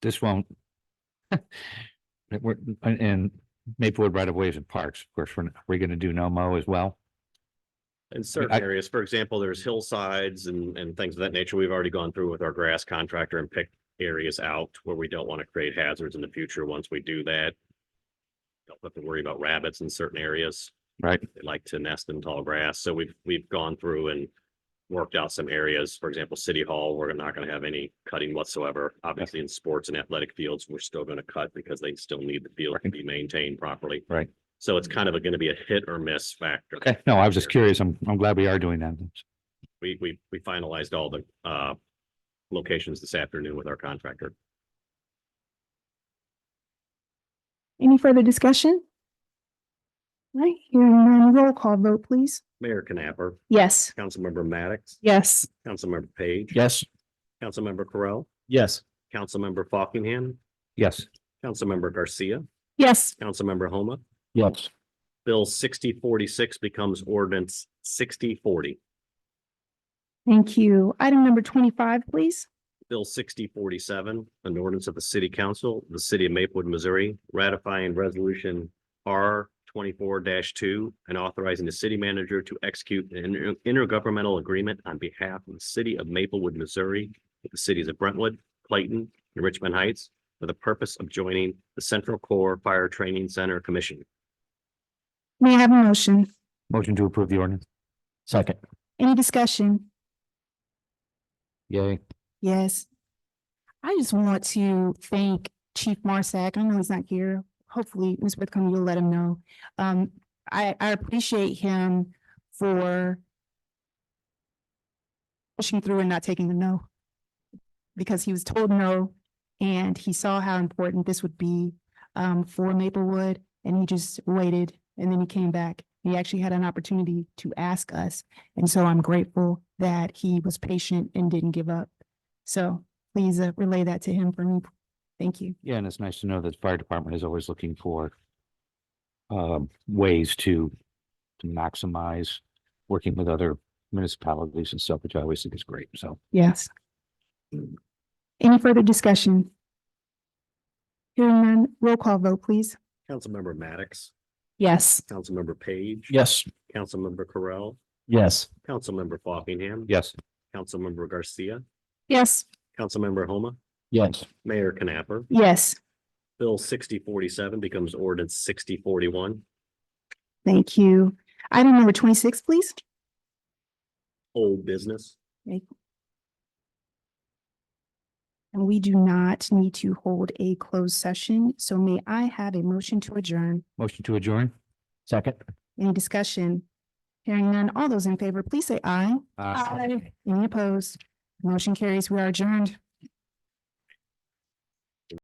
this won't. It We're, and- and Maplewood right of ways and parks, of course, we're, we're gonna do no mo as well. In certain areas, for example, there's hillsides and, and things of that nature. We've already gone through with our grass contractor and picked areas out where we don't want to create hazards in the future. Once we do that, don't have to worry about rabbits in certain areas. Right. They like to nest in tall grass. So we've, we've gone through and worked out some areas. For example, City Hall, we're not going to have any cutting whatsoever. Obviously, in sports and athletic fields, we're still going to cut because they still need the field to Right. be maintained properly. Right. So it's kind of going to be a hit or miss factor. Okay, no, I was just curious. I'm, I'm glad we are doing that. we, we, we finalized all the, uh, locations this afternoon with our contractor. Any further discussion? Right, hearing none, roll call vote, please. Mayor Knapper, Yes. Councilmember Maddox, Yes. Councilmember Page. Yes. Councilmember Correll, Yes. Councilmember Fockingham, Yes. Councilmember Garcia, Yes. Councilmember Homa. Yes. Bill sixty forty-six becomes ordinance sixty forty. Thank you. Item number twenty-five, please. Bill sixty forty-seven, an ordinance of the City Council, the City of Maplewood, Missouri, ratifying resolution R twenty-four two and authorizing the city manager to execute an inter- intergovernmental agreement on behalf of the City of Maplewood, Missouri, with the cities of Brentwood, Clayton, and Richmond Heights for the purpose of joining the Central Core Fire Training Center Commission. May I have a motion? Motion to approve the ordinance. Second. Any discussion? Yay. Yes. I just want to thank Chief Marsack. I know he's not here. Hopefully, Ms. Whitcomb, you'll let him know. Um, I, I appreciate him for pushing through and not taking the no. Because he was told no and he saw how important this would be um, for Maplewood and he just waited and then he came back. He actually had an opportunity to ask us. And so I'm grateful that he was patient and didn't give up. So please uh, relay that to him for me. Thank you. Yeah, and it's nice to know that the fire department is always looking for um, ways to, to maximize working with other municipalities and stuff, which I always think is great. So Yes. Any further discussion? Hearing none, roll call vote, please. Councilmember Maddox, Yes. Councilmember Page. Yes. Councilmember Correll, Yes. Councilmember Fockingham. yes, Councilmember Garcia, Yes. Councilmember Homa, Yes. Mayor Knapper. Yes. Bill sixty forty-seven becomes ordinance sixty forty-one. Thank you. Item number twenty-six, please. Old business. And we do not need to hold a closed session, so may I have a motion to adjourn? motion to adjourn. Second. Any discussion? Hearing none, all those in favor, please say aye. Uh, Any opposed? Motion carries, we are adjourned.